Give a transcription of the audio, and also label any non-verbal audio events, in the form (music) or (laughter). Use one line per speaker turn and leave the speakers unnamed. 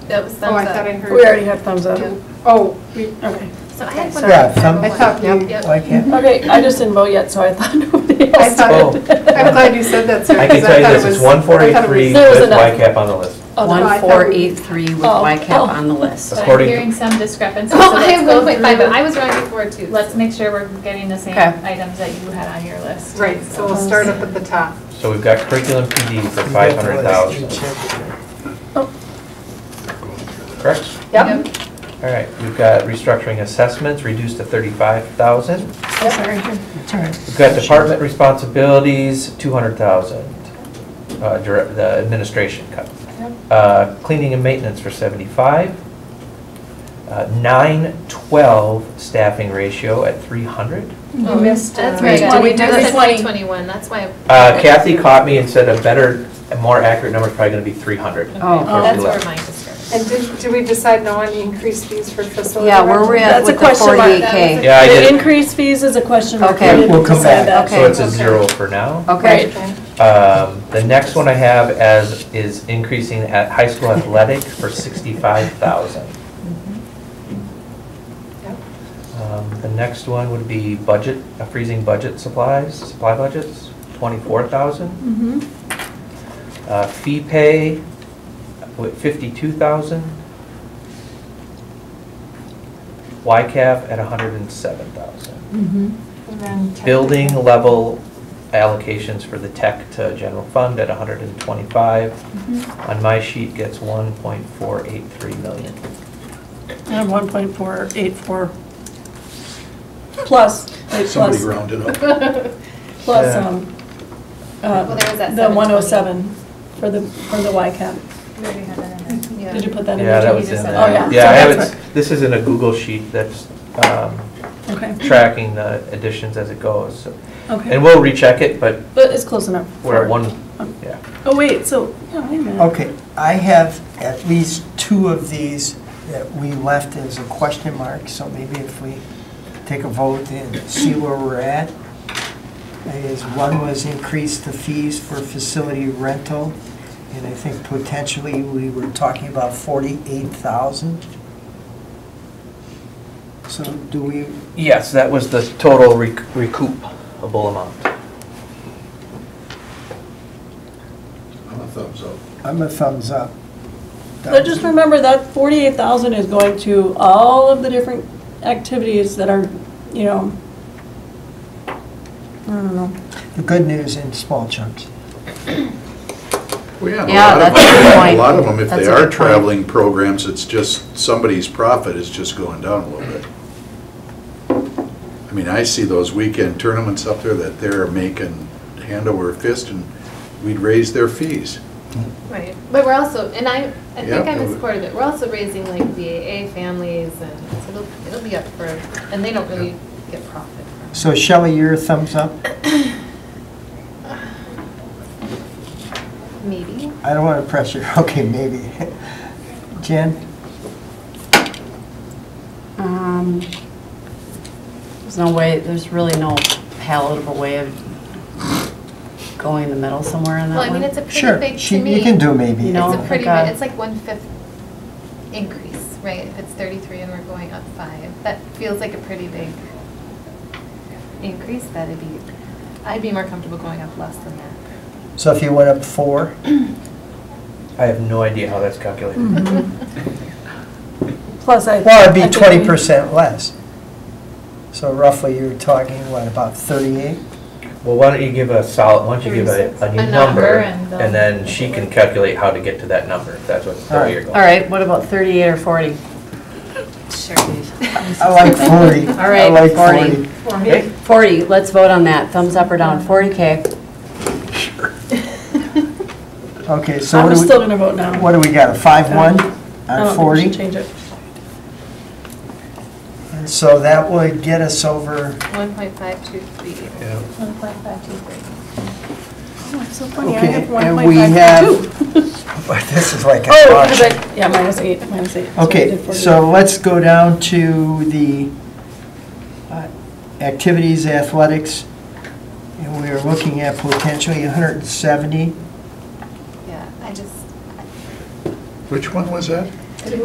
That was
Oh, I
thumbs
thought I
up.
heard.
We already have thumbs up.
Yeah.
Oh, we-
Okay.
So Uh, I had one.
Yeah, some,
I thought you,
Yep.
why can't,
Okay, I just didn't vote yet, so I thought (laughs) nobody
I
else
thought,
did.
Oh.
I'm glad you said that, sir.
I can
'cause
tell you
thought
this,
it
it's
was- I thought it
143
There was
with
enough.
YCAP on the list.
Oh, no.
One-
1483 with
Oh, oh.
YCAP on
(laughs)
the list.
But I'm
According-
hearing some discrepancy, so
Oh, I
let's
have
go
1.5,
through.
but I
was wrong before too. Let's make sure we're getting the same
Okay.
items that you had on your list. Oh,
Right, so we'll start up at the top.
So we've got curriculum PD for 500,000, correct?
Yep.
All right, we've got restructuring assessments reduced to 35,000. We've got department responsibilities, 200,000, uh, dire- the administration cut. Uh, Cleaning and maintenance for 75. Uh, 912 staffing ratio at 300.
You missed. uh,
That's right.
Did we do
That's
the
why 21, that's why.
Uh, Kathy caught me and said a better, a more accurate number is probably going to be 300.
Oh.
That's where my discrepancy.
(laughs) And did, did we decide no on increased fees for facility?
Yeah, where
rent?
we're at
That's a
with the
question mark.
48K.
Yeah, I
The
did.
increased fees is a question mark.
Okay.
We didn't
We'll come back.
decide that. Oh.
So it's
Okay.
a zero for now.
Okay.
Okay.
Um, The next one I have as, is increasing at high school athletics for 65,000.
Yep.
Um, The next one would be budget, uh, freezing budget supplies, supply budgets, 24,000.
Mhm.
Uh, Fee pay, with 52,000. YCAP at 107,000.
And then tech.
Building level allocations for the tech to general fund at 125. On my sheet gets 1.483 million.
I have 1.484. Plus, wait,
Somebody
plus,
rounded up.
plus,
Yeah.
um,
Well, there was
uh,
that
the
720.
107 for the, for the YCAP.
We already had that in there.
Did you put that in?
Yeah,
there?
that was in
Oh,
yeah.
there. Yeah,
So
I have
that's
it, this is in a Google sheet that's um,
Okay,
tracking the additions as it goes. And
okay.
we'll recheck it, but
But it's close enough.
we're at one, yeah.
Oh, wait, so, yeah, wait a minute.
Okay, I have at least two of these that we left as a question mark, so maybe if we take a vote and see where we're at. Is one was increase the fees for facility rental, and I think potentially we were talking about forty-eight thousand. So do we,
Yes, that was the total rec- recoupable amount.
I'm a thumbs up.
I'm a thumbs up.
But just remember that forty-eight thousand is going to all of the different activities that are, you know, I don't know.
The good news in small chunks.
Well,
Yeah,
yeah, and a
that's
lot of
a good
them,
point.
a lot of them, if
That's
they
a good
are
point.
traveling programs, it's just, somebody's profit is just going down a little bit. I mean, I see those weekend tournaments up there that they're making hand over fist, and we'd raise their fees.
Right, but we're also, and I, I think
Yep.
I'm in support of it, we're also raising like VAA families and so it'll, it'll be up for, and they don't really get profit from it.
So Shelley, your thumbs up?
Maybe,
I don't want to pressure, (laughs) okay, maybe. Jen?
Um, There's no way, there's really no palatable way of going the middle somewhere in that
well,
one.
I mean, it's a pretty
Sure,
big,
she-
to me.
you can do maybe.
You
Oh
know,
It's a
like
pretty,
a-
big- it's like one-fifth increase, right? If it's 33 and we're going up five, that feels like a pretty big increase, that'd be, I'd be more comfortable going up less than that.
So if you went up four,
I have no idea how that's
Mm-hmm.
calculated.
Plus I.
well, it'd
I
be
think we-
twenty percent less. So roughly, you're talking, what, about thirty-eight?
Well, why don't you give a solid, why don't you give a, a
A
new
number
number,
and, um,
and then she can calculate how to get to that number, if that's what, the way you're
All
going.
right, what about 38 or 40?
Sure.
I like forty.
All right,
I like forty.
40.
(laughs) For
Okay?
me,
40, let's vote on that, thumbs up or down, 40K.
Okay, so
I'm
what
still oh,
do
gonna vote now.
we, what do we got, a five-one
I don't think we
on
should
forty?
Change it.
And so that would get us over, (laughs)
1.523.
Yeah.
1.523.
Oh, it's so funny, I
okay,
have
and we
1.5
have,
too.
this is like a
Oh,
auction.
because I, yeah, minus eight, minus eight. we
Okay,
did 48.
so let's go down to the uh, activities, athletics, and we are looking at potentially 170.
Yeah, I just,
Which one was that?